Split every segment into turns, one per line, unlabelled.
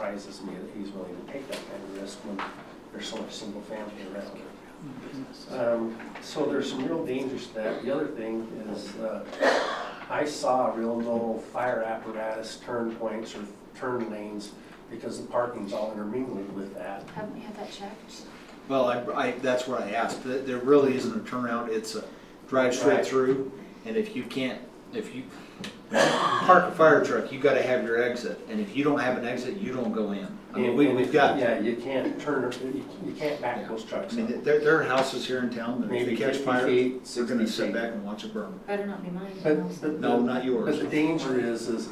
surprises me that he's willing to take that kind of risk when there's so much single family around. Um, So there's some real dangers to that. The other thing is, uh, I saw real no fire apparatus turn points or turn lanes because the parking's all intermingled with that.
Haven't we had that checked?
Well, I, I, that's what I asked. There there really isn't a turnaround. It's a drive
Right.
straight through. And if you can't, if you park a fire truck, you gotta have your exit. And if you don't have an exit, you don't go in. I mean, we,
And-
we've got, I
Yeah, you can't turn, you you can't back those trucks up.
mean, there, there are houses here in town that if
Maybe
they catch
50
fire,
feet,
they're gonna
60
sit
feet.
back and watch it burn.
Better not be mine.
But Uh, the-
No, not yours.
But the danger is, is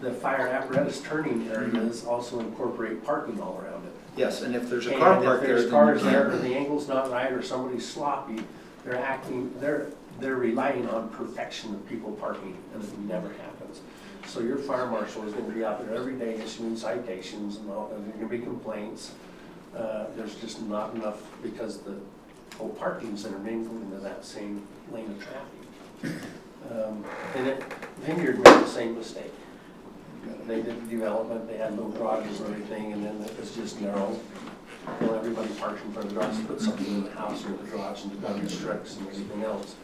the fire apparatus turning areas also incorporate parking all around it.
Yes, and if there's a
And
car
if
parked there,
there's
then you
cars there, or
can't.
the angle's not right, or somebody's sloppy, they're acting, they're, they're relying on perfection of people parking, and it never happens. So your fire marshal is gonna be out there every day issuing citations and all, and there's gonna be complaints. Uh, there's just not enough, because the whole parking's intermingled into that same lane of traffic. Um, And it, Vineyard made the same mistake. They did the development, they had little garages and everything, and then it was just narrow. Well, everybody parked in front of the garage, put something in the house or the garage and the garbage trucks and everything else.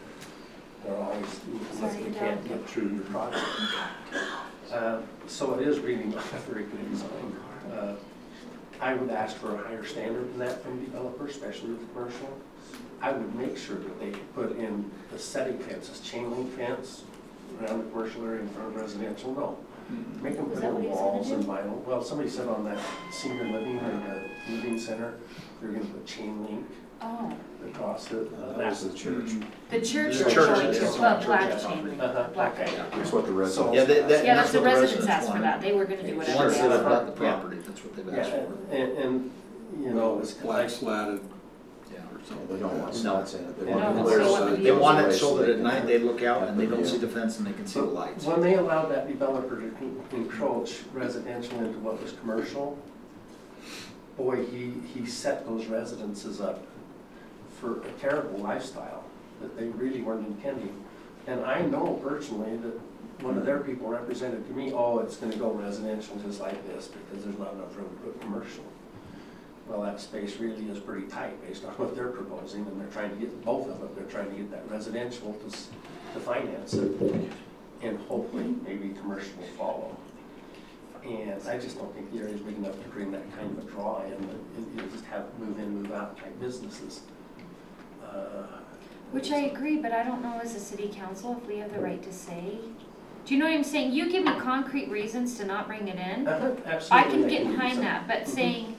They're always, unless they can't get through your project. Uh, So it is really not a very good design. Uh, I would ask for a higher standard than that from developers, especially with commercial. I would make sure that they put in the setting fences, chain link fence around the commercial area in front of residential, no. Make them
Is
put
that what
in
he's gonna
walls
do?
and vinyl. Well, somebody said on that senior living or the living center, they're gonna put chain link
Oh,
across it. Uh,
That was
Mm-hmm.
the church.
the church
The
is
church
going
is
to,
on
well,
church
black
property.
chain link,
Uh-huh,
black.
okay.
It's what the residents.
Yeah, that- that-
Yeah,
that's
but the
what the
residents
residents
asked for
wanted.
that, they were gonna do whatever
Once
they
they've
asked
got
for.
the property, that's what they've asked
Yeah,
for.
and, and, you know, it's.
black slatted
Yeah.
or
They
something.
don't want slats in it. They
No,
want
it's
clear
still what
so
the
that-
They want it so that at night they look out and they don't see the fence and they can see the lights.
When they allowed that developer to con- encroach residential into what was commercial, boy, he, he set those residences up for a terrible lifestyle that they really weren't intending. And I know personally that one of their people represented to me, oh, it's gonna go residential just like this because there's not enough room to put commercial. Well, that space really is pretty tight based on what they're proposing and they're trying to get both of them, they're trying to get that residential to, s- to finance it. And hopefully, maybe commercial will follow. And I just don't think the area's big enough to bring that kind of a draw in, and you'll just have move in, move out type businesses. Uh,
Which I agree, but I don't know as a city council if we have the right to say. Do you know what I'm saying? You give me concrete reasons to not bring it in.
Uh-huh,
I
Absolutely.
can
they
get
do
behind
something.
that, but saying,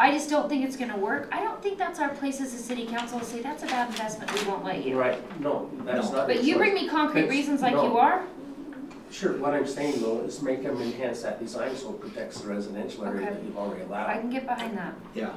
I just don't think it's gonna work, I don't think that's our place as a city council to say, that's a bad investment, we won't let you.
Right, no, that's
No.
not.
But you
your
bring
choice.
me concrete
It's-
reasons like
no.
you are,
Sure, what I'm saying though is make them enhance that design so it protects the residential area
Okay.
that you've already
I
allowed.
can get behind that.
Yeah.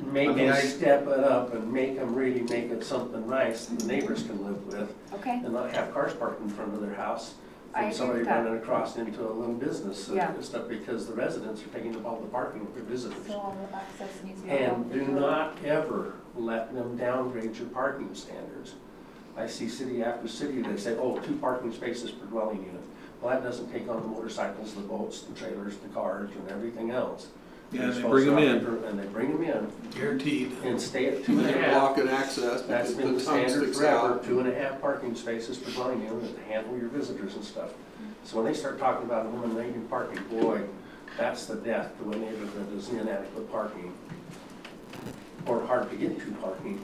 I
Make
mean,
them
I-
step it up and make them really make it something nice that the neighbors can live with
Okay,
and not have cars parked in front of their house.
I agree
From
with
somebody
that.
running across into a little business and
Yeah.
stuff because the residents are taking up all the parking for visitors.
So all the access needs to be.
And do not ever let them downgrade your parking standards. I see city after city, they say, oh, two parking spaces per dwelling unit. Well, that doesn't take on the motorcycles, the boats, the trailers, the cars, and everything else.
Yeah, they
They're
bring 'em
supposed to- And they bring them in
guaranteed.
and stay at two
And
and a
they
half.
block and access
That's
because
been
the
the
tongue
standard
sticks
forever,
out.
two and a half parking spaces per dwelling unit to handle your visitors and stuff. So when they start talking about eliminating parking, boy, that's the death to a neighborhood that is inadequate parking or hard to get to parking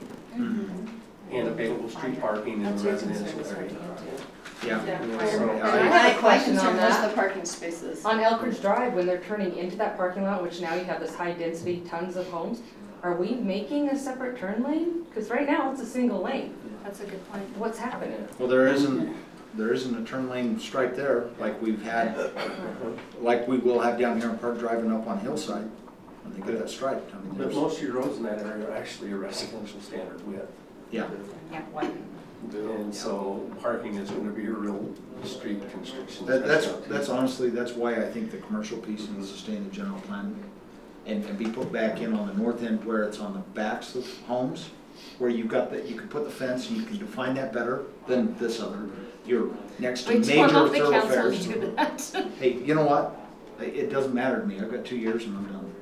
and available street parking in
Mm-hmm. that's
the
your concern,
residential
is hard to
area.
get to.
Yeah.
So,
I
I-
had
My
a question
concern
on
was
that.
The parking spaces.
On Elkridge Drive, when they're turning into that parking lot, which now you have this high density, tons of homes, are we making a separate turn lane? Because right now it's a single lane.
That's a good point.
What's happening?
Well, there isn't, there isn't a turn lane stripe there like we've had, like we will have down here in Park driving up on Hillside. When they get that stripe, I mean,
But
there's,
most of your roads in that area are actually a residential standard width.
yeah.
Yeah, why?
And so parking is gonna be a real street constriction.
That, that's,
especially-
that's honestly, that's why I think the commercial piece needs to stay in the general plan and, and be put back in on the north end where it's on the backs of homes, where you've got that, you can put the fence and you can define that bebetter than this other. You're next to
Wait till I'm
major
off the council
thoroughfares.
to do that.
Hey, you know what? It- It doesn't matter to me. I've got two years and I'm done.